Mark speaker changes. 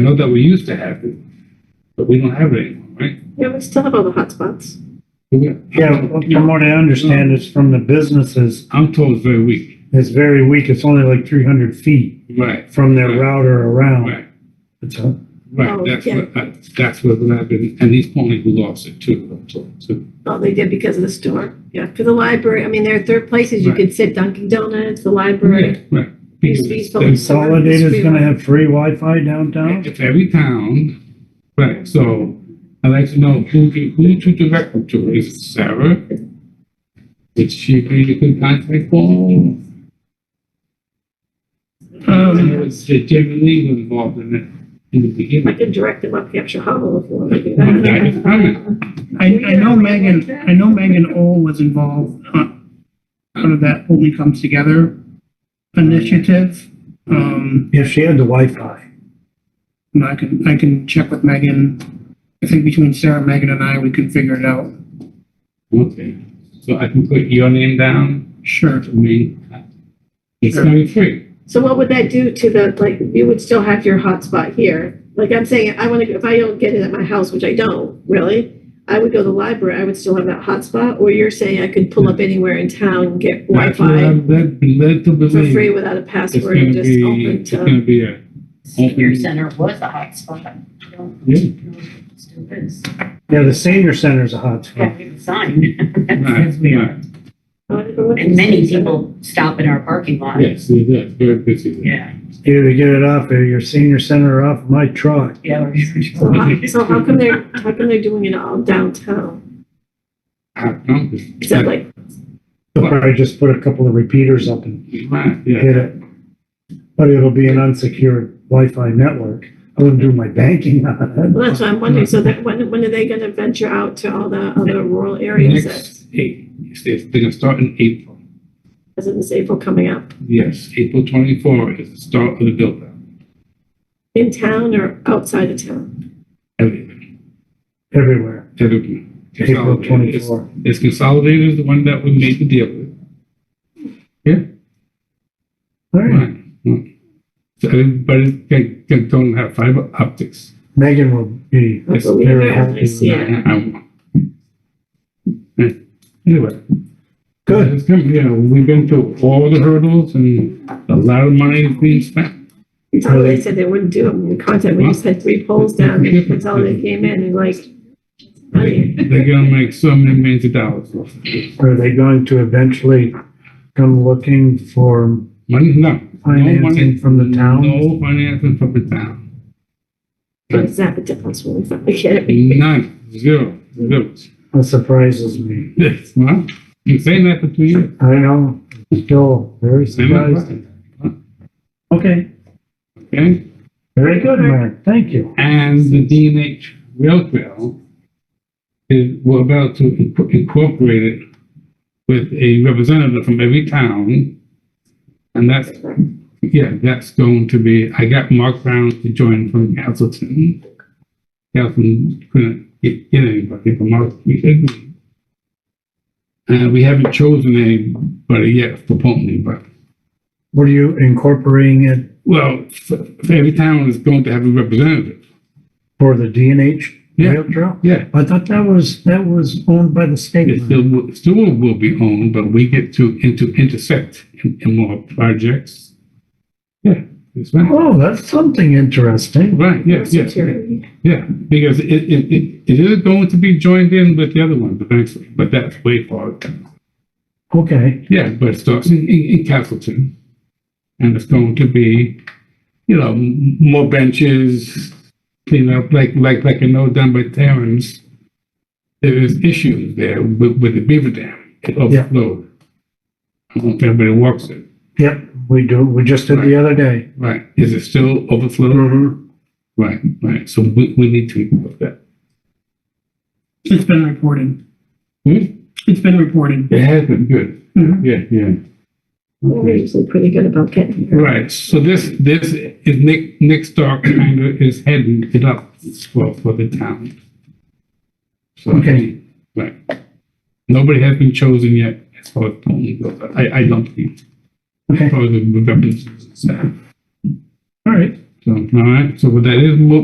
Speaker 1: I know that we used to have it, but we don't have it anymore, right?
Speaker 2: Yeah, we still have all the hotspots.
Speaker 3: Yeah, from what I understand, it's from the businesses,
Speaker 1: I'm told it's very weak.
Speaker 3: it's very weak, it's only like three hundred feet
Speaker 1: Right,
Speaker 3: from their router around.
Speaker 1: right,
Speaker 3: It's a-
Speaker 1: right.
Speaker 2: Oh,
Speaker 1: That's
Speaker 2: yeah.
Speaker 1: what, I- that's what I've been, and he's only who lost it too. I'm told. So,
Speaker 2: Oh, they did because of the store. Yeah, for the library. I mean, there are third places you
Speaker 1: Right.
Speaker 2: could sit Dunkin' Donuts, the library.
Speaker 1: right, right.
Speaker 2: These-
Speaker 1: Because
Speaker 2: these
Speaker 1: there's-
Speaker 2: folks-
Speaker 3: Consolidated's gonna have free Wi-Fi downtown?
Speaker 1: If every town, right, so I'd like to know who, to- who to direct them to, is it Sarah? Is she who you can contact Paul? Um, was Jamie Lee was involved in it in the
Speaker 2: I
Speaker 1: beginning.
Speaker 2: could direct them up Hampshire Hollow if you want to do
Speaker 1: I
Speaker 2: that.
Speaker 1: just comment,
Speaker 4: I, I know Megan, I know Megan O was involved on sort of that Only Comes Together initiative. Um,
Speaker 3: If she had the Wi-Fi.
Speaker 4: and I can, I can check with Megan. I think between Sarah, Megan and I, we can figure it out.
Speaker 1: okay, so I can put your name down,
Speaker 4: Sure.
Speaker 1: I mean, it's gonna be free.
Speaker 2: So what would that do to the, like, you would still have your hotspot here? Like I'm saying, I want to, if I don't get it at my house, which I don't really, I would go to the library. I would still have that hotspot. Or you're saying I could pull up anywhere in town, and get
Speaker 1: That's what
Speaker 2: Wi-Fi
Speaker 1: I'm led, led to
Speaker 2: for free
Speaker 1: believe,
Speaker 2: without a
Speaker 1: it's
Speaker 2: password
Speaker 1: gonna
Speaker 2: and just
Speaker 1: be,
Speaker 2: open
Speaker 1: it's
Speaker 2: to.
Speaker 1: gonna be a,
Speaker 5: Senior Center was a hotspot.
Speaker 1: Mm-hmm. yeah,
Speaker 5: Still is.
Speaker 3: Yeah, the senior center's a hotspot.
Speaker 5: Yeah, we have a sign.
Speaker 1: Right,
Speaker 5: That's we
Speaker 1: right.
Speaker 5: are. And many people stop in our parking lot.
Speaker 1: yes, it is, very busy. there.
Speaker 5: Yeah.
Speaker 3: Either get it off of your senior center or off my truck.
Speaker 5: Yeah.
Speaker 2: So
Speaker 5: we're-
Speaker 2: how, so how come they're, how come they're doing it all downtown?
Speaker 1: How come?
Speaker 2: Is that like,
Speaker 3: They'll probably just put a couple of repeaters up and
Speaker 1: Right, yeah,
Speaker 3: hit it. But it'll be an unsecured Wi-Fi network. I wouldn't do my banking on it.
Speaker 2: well, that's what I'm wondering, so that, when, when are they gonna venture out to all the other rural areas
Speaker 1: next,
Speaker 2: that's,
Speaker 1: eight, it's, it's gonna start in April,
Speaker 2: as in this April coming up?
Speaker 1: yes, April twenty-four is the start of the build out,
Speaker 2: In town or outside of town?
Speaker 1: everything,
Speaker 3: Everywhere,
Speaker 1: everything.
Speaker 3: April
Speaker 1: Consolidated. It's-
Speaker 3: twenty-four.
Speaker 1: It's consolidated is the one that we made the deal with,
Speaker 3: All right.
Speaker 1: right? right. So everybody can, can, don't have fiber optics.
Speaker 3: Megan will be
Speaker 2: That's what we
Speaker 3: very
Speaker 2: have,
Speaker 3: happy.
Speaker 2: I
Speaker 3: with
Speaker 2: see.
Speaker 3: that.
Speaker 2: Yeah.
Speaker 1: I- I- Yeah. Anyway.
Speaker 3: Good.
Speaker 1: It's come, you know, we've been through all the hurdles and a lot of money is being spent.
Speaker 2: So they said they wouldn't do it, when we contacted, we just had three polls down, and that's all they came in, and like,
Speaker 1: They-
Speaker 2: money.
Speaker 1: They're gonna make so many millions of dollars off of it.
Speaker 3: Are they going to eventually come looking for,
Speaker 1: Money, no. No money-
Speaker 3: Financing from the town?
Speaker 1: No financing from the town.
Speaker 2: What is that the difference when we finally get it?
Speaker 1: None, zero, zero.
Speaker 3: that surprises me.
Speaker 1: Yes, well, been saying that for two years.
Speaker 3: I know, I'm still very
Speaker 1: Am I
Speaker 3: surprised.
Speaker 1: right?
Speaker 3: Okay,
Speaker 1: Okay,
Speaker 3: very good, Mark, thank you.
Speaker 1: and the DNH rail trail is, we're about to inc- incorporate it with a representative from every town. And that's Yeah, that's going to be, I got Mark Brown to join from Castleton. Castleton couldn't get get anybody, but Mark, we agreed. Uh, we haven't chosen anybody yet for Pulteney, but,
Speaker 3: Were you incorporating it
Speaker 1: well, for for every town is going to have a representative.
Speaker 3: for the DNH
Speaker 1: Yeah.
Speaker 3: rail trail?
Speaker 1: Yeah.
Speaker 3: I thought that was, that was owned by the state.
Speaker 1: It still, will- still will be owned, but we get to, into, intersect in, in more projects. Yeah, that's right.
Speaker 3: Oh, that's something interesting.
Speaker 1: Right, yes, yes.
Speaker 2: Security.
Speaker 1: Yeah, because it, it, it, it is going to be joined in with the other one eventually, but that's way far.
Speaker 3: Okay,
Speaker 1: Yeah, but it starts in, in, in Castleton. And it's going to be, you know, m- more benches, clean up, like, like, like I know done by Terrence. There is issues there with, with the beaver dam. It overflowed. I don't know if everybody walks it.
Speaker 3: yep, we do, we just did the other day.
Speaker 1: Right, is it still overflowed?
Speaker 3: Mhm.
Speaker 2: Mm-hmm.
Speaker 1: Right, right, so we, we need to look at that.
Speaker 4: It's been reported.
Speaker 1: Hmm?
Speaker 4: It's been reported.
Speaker 1: It has been good.
Speaker 4: Mhm.
Speaker 1: Yeah, yeah.
Speaker 2: We're usually pretty good about getting here.
Speaker 1: Right, so this, this is Nick, Nick Stark kind of is heading it up for, for the town. So,
Speaker 3: Okay.
Speaker 1: Right. Nobody has been chosen yet as far as Pony goes. I, I don't think.
Speaker 3: Okay.
Speaker 1: Probably the representatives.
Speaker 3: All right,
Speaker 1: So, all right, so what that is, mo-